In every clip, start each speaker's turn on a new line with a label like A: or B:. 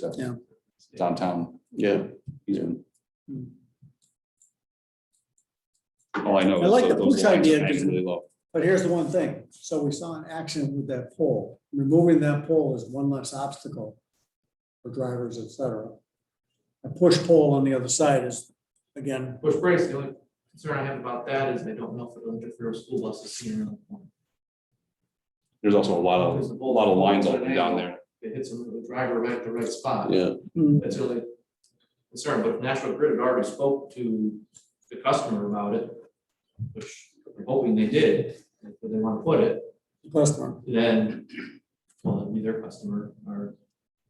A: so.
B: Yeah.
A: Downtown.
C: Yeah.
A: easement.
B: Hmm.
C: All I know.
B: I
C: is
B: like
C: tho-
B: the
C: those lines
B: push
C: are
B: idea, because-
C: Actually low.
B: But here's the one thing, so we saw an action with that pole, removing that pole is one less obstacle for drivers, et cetera. A push pole on the other side is, again,
D: Bush Brace, the only concern I have about that is I don't know if it'll interfere with school buses seeing another one.
C: There's also a lot of,
D: There's
C: a
D: a
C: lot of lines
D: boulder.
C: open down there.
D: It hits the driver right at the right spot.
C: Yeah.
B: mm,
D: That's really concerned, but National Grid had already spoke to the customer about it, which I'm hoping they did, if they want to put it,
B: customer,
D: then, well, it'd be their customer or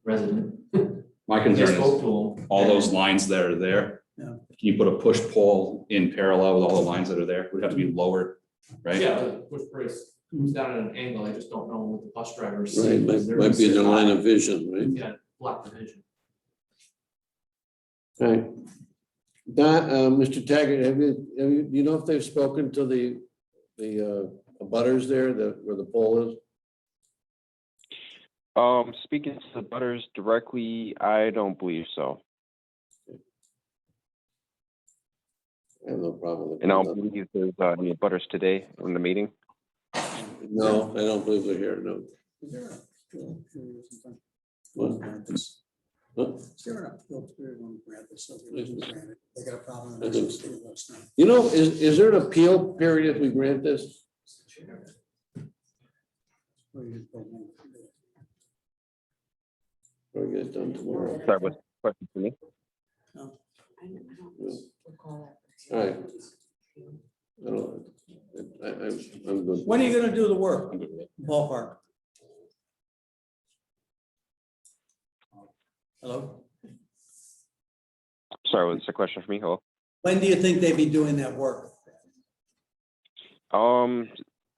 D: resident.
C: My
D: They
C: concern is
D: spoke to them.
C: all those lines that are there.
B: Yeah.
C: Can you put a push pole in parallel with all the lines that are there? Would have to be lower, right?
D: Yeah, but Bush Brace comes down at an angle, I just don't know what the bus drivers see.
E: Right,
D: because
E: might,
D: they're
E: might be in the
D: sitting
E: line of vision, right?
D: Yeah, block the vision.
E: Right. Don, uh, Mr. Taggart, have you, have you, you know if they've spoken to the, the, uh, butters there, the, where the pole is?
F: Um, speaking to the butters directly, I don't believe so.
E: I have no problem with
F: And I don't
E: that.
F: believe there's uh, any butters today in the meeting.
E: No, I don't believe they're here, no.
B: is there a field period or something?
E: What?
B: Grant this.
E: Huh?
B: Is there a field period when we grant this, so if we
E: Mhm.
B: grant it, they got a problem.
E: I think
B: they'll let us know.
E: You know, is, is there an appeal period if we grant this?
B: Or you just don't want to do it.
E: Or get it done tomorrow?
F: Sorry, what's the question for me?
E: All right. I don't, I, I'm, I'm good.
B: When are you gonna do the work, ballpark? Hello?
F: Sorry, what's the question for me? Hello?
B: When do you think they'd be doing that work?
F: Um,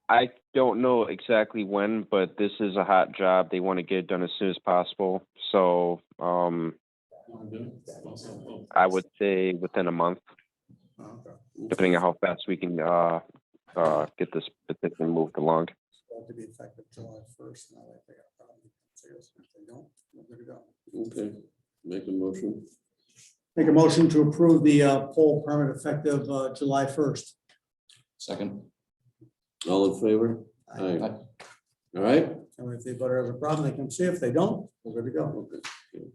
F: I don't know exactly when, but this is a hot job. They want to get it done as soon as possible. So, um, I would say within a month, depending on how fast we can, uh, uh, get this petition moved along.
B: Have to be effective July first, now that they got a problem. If they don't, we're good to go.
E: Okay, make a motion.
B: Make a motion to approve the uh, poll permit effective uh, July first.
A: Second.
E: All in favor? Aye.
B: And
E: All right?
B: if the butter has a problem, they come see. If they don't, we're good to go.
E: Okay.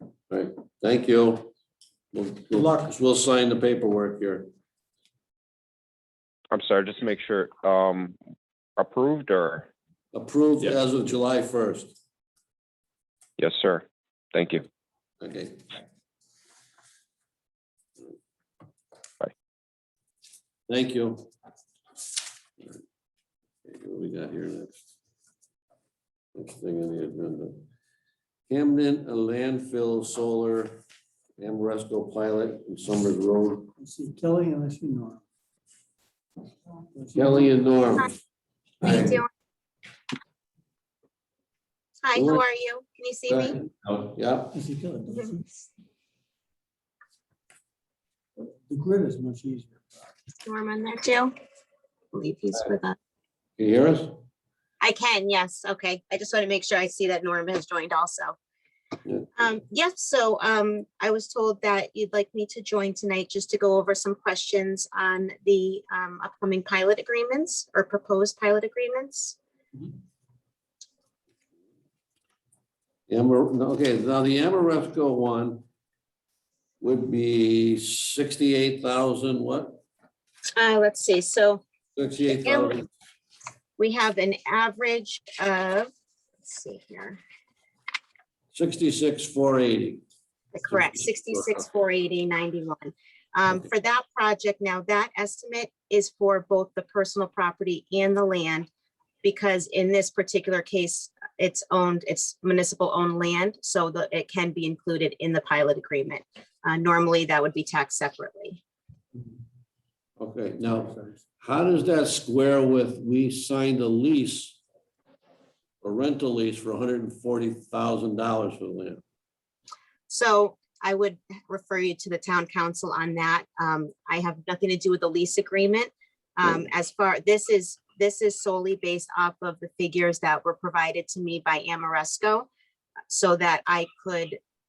E: All right, thank you. Good
B: luck.
E: We'll sign the paperwork here.
F: I'm sorry, just to make sure, um, approved or?
E: Approved
C: Yeah.
E: as of July first.
F: Yes, sir. Thank you.
E: Okay.
F: Bye.
E: Thank you. All right. Okay, What we got here next? Next thing on the agenda. Camden, a landfill solar, Amoresco pilot and Summers Road.
B: I See Kelly unless you know. her.
E: Kelly and Norm.
G: How you doing? Hi,
E: Hello.
G: how are you? Can you see me?
E: Oh, Yeah,
B: I see Kelly, don't you? The grid is much easier.
G: Norm on there too? I believe he's with us.
E: you hear us?
G: I can, yes, okay. I just want to make sure I see that Norm has joined also.
E: Yeah.
G: Um, yes, so, um, I was told that you'd like me to join tonight just to go over some questions on the, um, upcoming pilot agreements or proposed pilot agreements.
E: Amar, no, okay, now the Amoresco one would be sixty-eight thousand, what?
G: Uh, let's see, so
E: Sixty-eight thousand,
G: we have an average of, let's see here.
E: sixty-six, four eighty.
G: Correct,
E: 66,
G: sixty-six, four eighty, ninety-one. Um,
E: Okay.
G: for that project, now that estimate is for both the personal property and the land. Because in this particular case, it's owned, it's municipal owned land, so that it can be included in the pilot agreement. Uh, normally, that would be taxed separately.
E: Okay, now, how does that square with, we signed a lease, a rental lease for hundred and forty thousand dollars for the land?
G: So I would refer you to the town council on that. Um, I have nothing to do with the lease agreement. Um, as far, this is, this is solely based off of the figures that were provided to me by Amoresco so that I could